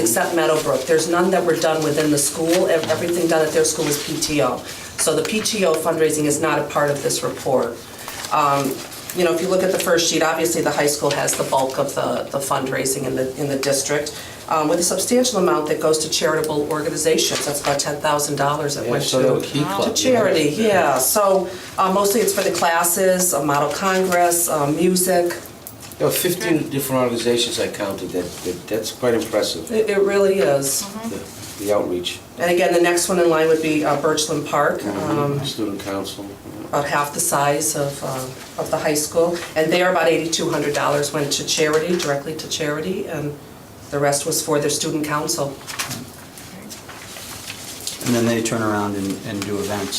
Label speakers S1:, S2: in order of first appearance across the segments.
S1: except Meadowbrook. There's none that were done within the school. Ev- Everything done at their school is PTO. So the PTO fundraising is not a part of this report. Um, You know, if you look at the first sheet, obviously the high school has the bulk of the the fundraising in the, in the district, um, with a substantial amount that goes to charitable organizations. That's about $10,000 that
S2: Yeah,
S1: went to.
S2: so the key club,
S1: To charity, yeah. So uh, mostly it's for the classes, a model congress, uh, music.
S2: There were 15 different organizations I counted, that, that- that's quite impressive,
S1: It it really is.
S2: the the outreach.
S1: And again, the next one in line would be uh, Birchland Park,
S2: Mm-hmm.
S1: um,
S2: Student council.
S1: about half the size of, uh, of the high school. And there, about $8,200 went to charity, directly to charity, and the rest was for their student council.
S3: And then they turn around and, and do events.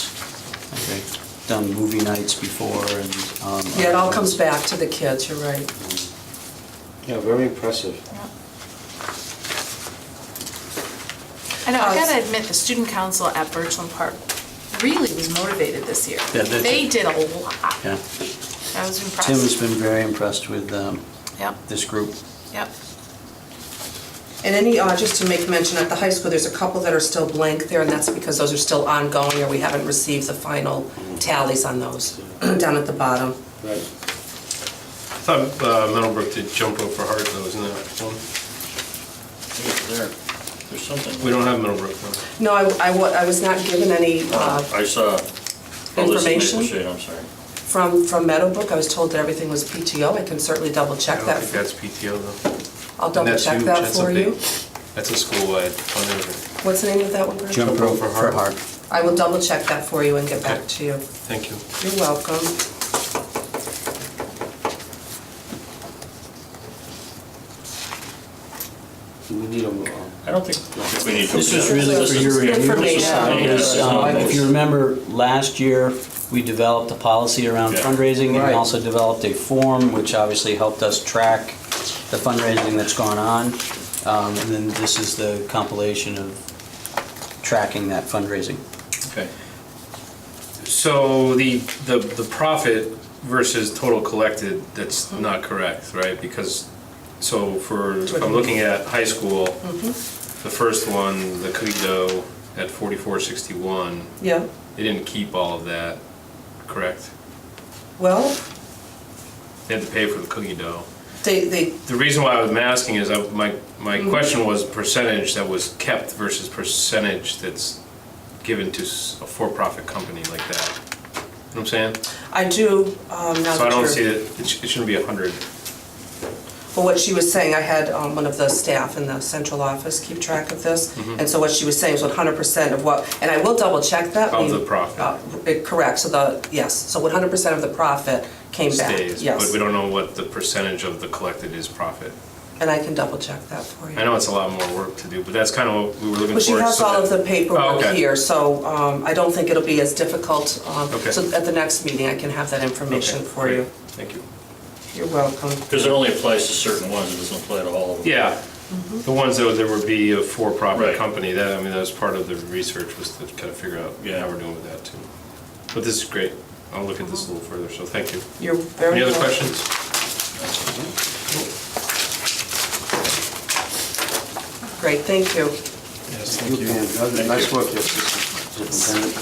S3: Like They've done movie nights before and. um,
S1: Yeah, it all comes back to the kids, you're right.
S2: Yeah, very impressive.
S4: I know, I gotta admit, the student council at Birchland Park really was motivated this year.
S3: Yeah, they did.
S4: They did a lot.
S3: Yeah.
S4: I
S3: Tim
S4: was
S3: has
S4: impressed.
S3: been very impressed with um,
S4: Yep,
S3: this group.
S4: yep.
S1: And any, uh, just to make mention, at the high school, there's a couple that are still blank there, and that's because those are still ongoing, or we haven't received the final tallies on those, down at the bottom.
S2: Right.
S5: I thought uh, Meadowbrook did jump rope for heart though, isn't that one?
S6: There, there's something.
S5: We don't have Meadowbrook though.
S1: No, I, I wa- I was not given any uh,
S6: I saw. Oh, this is
S1: Information?
S6: Maple Shade, I'm sorry.
S1: from, from Meadowbrook. I was told that everything was PTO. I can certainly double
S5: I
S1: check
S5: don't
S1: that.
S5: think that's PTO though.
S1: I'll double
S5: Oh, That's
S1: check
S5: huge.
S1: that
S5: That's a
S1: for
S5: big-
S1: you.
S5: That's a school-wide fundraiser.
S1: What's the name of that one? Bruce?
S3: Jump rope for
S5: Heart.
S3: heart.
S1: I will double check that for you and get back
S5: Okay.
S1: to you.
S5: Thank you.
S1: You're welcome.
S2: Do we need a, uh,
S6: I don't think, I think we need to.
S3: This is really for your review.
S1: Information.
S3: Uh, is, um, If you remember, last year, we developed a policy around
S6: Yeah.
S3: fundraising
S2: Right.
S3: and also developed a form, which obviously helped us track the fundraising that's gone on. Um, And then this is the compilation of tracking that fundraising.
S6: Okay.
S5: So the, the the profit versus total collected, that's not correct, right? Because, so for, if I'm looking at high school,
S1: Mm-hmm.
S5: the first one, the Cogito at 4461,
S1: Yeah,
S5: they didn't keep all of that, correct?
S1: well,
S5: They had to pay for the cookie dough.
S1: they, they,
S5: The reason why I'm asking is, I- my, my
S1: Mm-hmm.
S5: question was percentage that was kept versus percentage that's given to s- a for-profit company like that. You know what I'm saying?
S1: I do, um, now
S5: So I
S1: that
S5: don't
S1: you're-
S5: see that, it sh- it shouldn't be 100.
S1: Well, what she was saying, I had um, one of the staff in the central office keep track of this,
S5: Mm-hmm.
S1: and so what she was saying is 100% of what, and I will double check that.
S5: Of
S1: we-
S5: the profit.
S1: uh, it- Correct, so the, yes, so 100% of the profit came back,
S5: stays, but
S1: yes.
S5: we don't know what the percentage of the collected is profit.
S1: And I can double check that for you.
S5: I know it's a lot more work to do, but that's kind of what we were looking
S1: But
S5: for.
S1: she has
S5: so
S1: all of
S5: that-
S1: the
S5: Oh,
S1: paperwork
S5: okay.
S1: here, so um, I don't think it'll be as difficult. um,
S5: Okay.
S1: So at the next meeting, I can have that information
S5: Okay,
S1: for
S5: great.
S1: you.
S5: Thank you.
S1: You're welcome.
S6: Because it only applies to certain ones, it doesn't apply to all of them.
S5: Yeah, the ones that would- there would be a
S6: Right.
S5: for-profit company, that, I mean, that was part of the research, was to kind of figure out
S6: Yeah.
S5: how we're doing with that too. But this is great, I'll look at this a little further, so thank you.
S1: You're very
S5: Any
S1: welcome.
S5: other questions?
S1: Great, thank you.
S2: you can- nice work, yes, superintendent.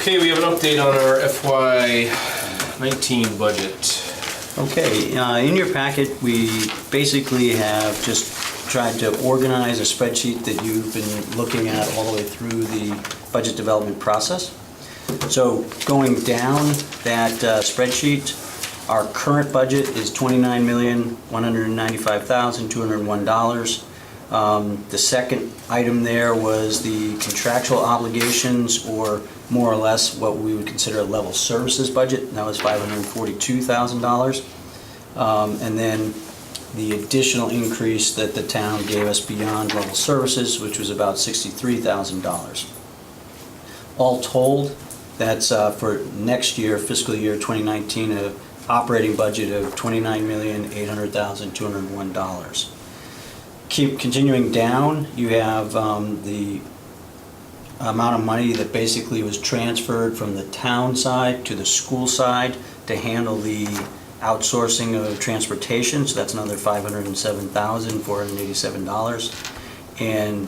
S5: Okay, we have an update on our FY nineteen budget.
S3: Okay, uh, in your packet, we basically have just tried to organize a spreadsheet that you've been looking at all the way through the budget development process. So going down that uh, spreadsheet, our current budget is $29,195,201. Um, The second item there was the contractual obligations, or more or less what we would consider a level services budget, and that was $542,000. Um, And then the additional increase that the town gave us beyond level services, which was about $63,000. All told, that's uh, for next year, fiscal year 2019, a operating budget of $29,800,201. Keep continuing down, you have um, the amount of money that basically was transferred from the town side to the school side to handle the outsourcing of transportation, so that's another $507,487. And